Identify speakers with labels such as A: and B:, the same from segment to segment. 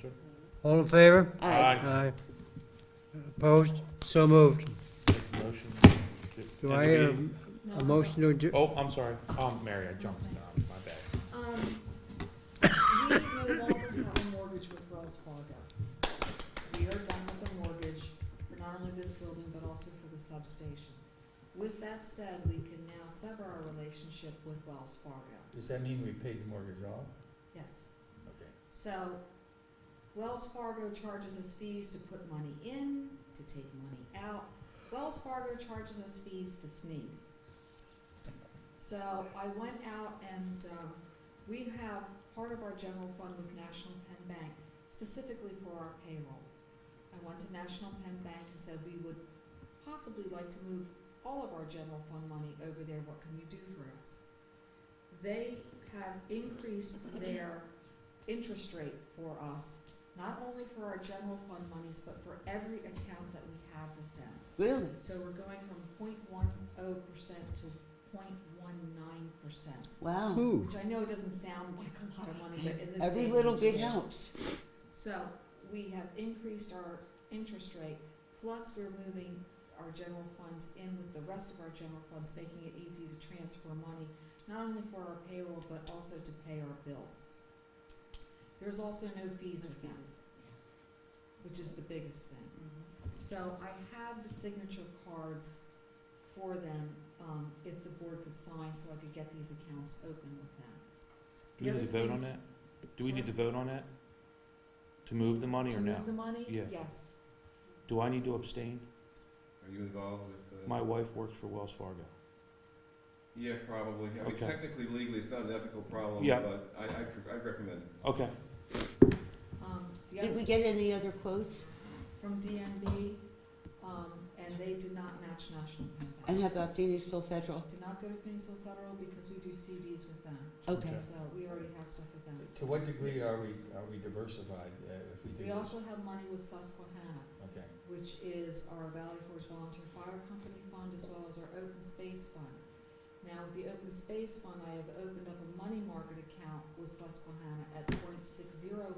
A: sir.
B: All in favor?
C: Uh,
D: Aye.
B: Aye. Opposed? So moved.
A: Motion.
B: Do I hear a- a motion to adjourn?
A: Oh, I'm sorry, um, Mary, I jumped down, my bad.
C: Um, we no longer have a mortgage with Wells Fargo. We are done with the mortgage for not only this building, but also for the substation. With that said, we can now sever our relationship with Wells Fargo,
A: Does that mean we paid the mortgage off?
C: yes.
A: Okay.
C: So Wells Fargo charges us fees to put money in, to take money out. Wells Fargo charges us fees to sneeze. So I went out and, um, we have part of our general fund with National Penn Bank specifically for our payroll. I went to National Penn Bank and said we would possibly like to move all of our general fund money over there. What can you do for us? They have increased their interest rate for us, not only for our general fund monies, but for every account that we have with them.
D: Really?
C: So we're going from 0.10 percent to 0.19 percent,
D: Wow.
B: Ooh,
C: which I know doesn't sound like a lot of money, but in this day
D: Every
C: and
D: little
C: age
D: bit
C: it is.
D: helps.
C: So we have increased our interest rate, plus we're moving our general funds in with the rest of our general funds, making it easy to transfer money, not only for our payroll, but also to pay our bills. There's also no fees or fees, which is the biggest thing.
E: Mm-hmm.
C: So I have the signature cards for them, um, if the board could sign, so I could get these accounts open with them.
A: Do we
C: The
A: need to
C: other
A: vote on
C: thing-
A: that? Do we need to vote on that? To move the money or
C: To
A: no?
C: move the money?
A: Yeah.
C: Yes.
A: Do I need to abstain?
F: Are you involved with? uh,
A: My wife works for Wells Fargo.
F: Yeah, probably. I mean,
A: Okay.
F: technically, legally, it's not an ethical problem,
A: Yeah.
F: but I, I, pre- I recommend it.
A: Okay,
C: Um, the other
D: Did we get any other quotes?
C: from DNB, um, and they did not match National Pen Bank.
D: And how about Phoenixville Federal?
C: Did not go to Phoenixville Federal because we do CDs with them,
D: Okay.
A: Okay.
C: so we already have stuff with them.
G: To what degree are we, are we diversified uh, if we do this?
C: We also have money with Susquehanna,
G: Okay,
C: which is our Valley Forge Volunteer Fire Company Fund as well as our Open Space Fund. Now, with the Open Space Fund, I have opened up a money market account with Susquehanna at 0.60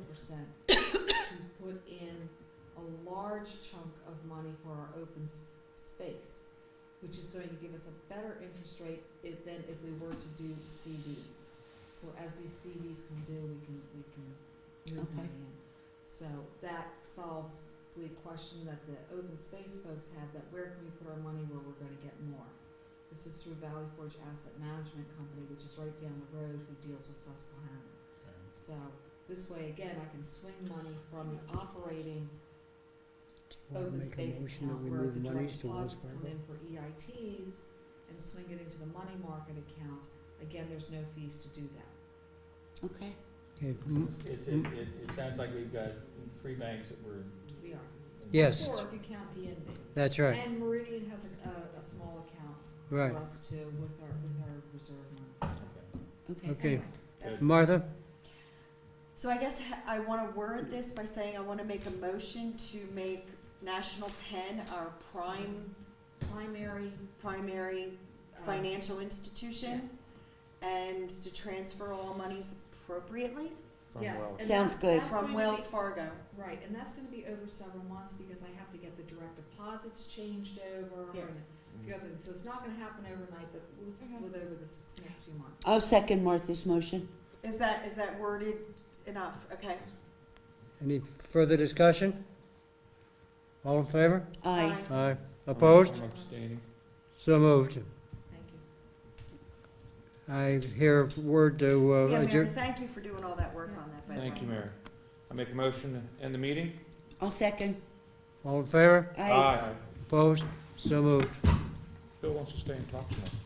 C: percent to put in a large chunk of money for our open s- space, which is going to give us a better interest rate if, than if we were to do CDs. So as these CDs come due, we can, we can move
D: Okay.
C: money in. So that solves the question that the open space folks had, that where can we put our money where we're gonna get more? This is through Valley Forge Asset Management Company, which is right down the road, who deals with Susquehanna. So this way, again, I can swing money from the operating
B: Do I
C: open
B: make
C: space
B: a motion that
C: account
B: we
C: where
B: move
C: the direct
B: monies to Wells
C: deposits come
B: Fargo?
C: in for EITs and swing it into the money market account. Again, there's no fees to do that.
D: Okay.
B: Okay, m-
G: it's, it, it, it sounds like we've got three banks that were.
C: We are.
B: Yes.
C: Or if you count DNB.
B: That's right,
C: And Meridian has a, a, a small account
B: right.
C: for us too with our, with our reserve money.
D: Okay.
B: Okay.
C: Anyway, that's-
B: Martha,
E: So I guess ha- I want to word this by saying I want to make a motion to make National Penn our prime,
C: primary.
E: primary
C: uh,
E: financial institution
C: Yes,
E: and to transfer all monies appropriately
A: from
C: yes.
A: Wells.
C: and
D: Sounds
C: that-
D: good.
C: that's going
E: from
C: to
E: Wells
C: be-
E: Fargo.
C: Right, and that's gonna be over several months because I have to get the direct deposits changed over
E: Yeah.
C: and
G: Mm.
C: a few other things. So it's not gonna happen overnight, but we'll, s-
E: Mhm.
C: we'll over this next few months.
D: I'll second Martha's motion.
E: Is that, is that worded enough? Okay.
B: any further discussion? All in favor?
D: Aye.
B: Aye. Opposed?
G: I'm abstaining.
B: So moved.
C: Thank you.
B: I hear a word to uh,
E: Yeah, Mary,
B: adjourn.
E: thank you for doing all that work on that. by the
A: Thank
E: way.
A: you, Mary. I make a motion to end the meeting?
D: I'll second.
B: All in favor?
D: Aye.
B: Opposed? So moved.
A: Bill wants to stay and talk to me.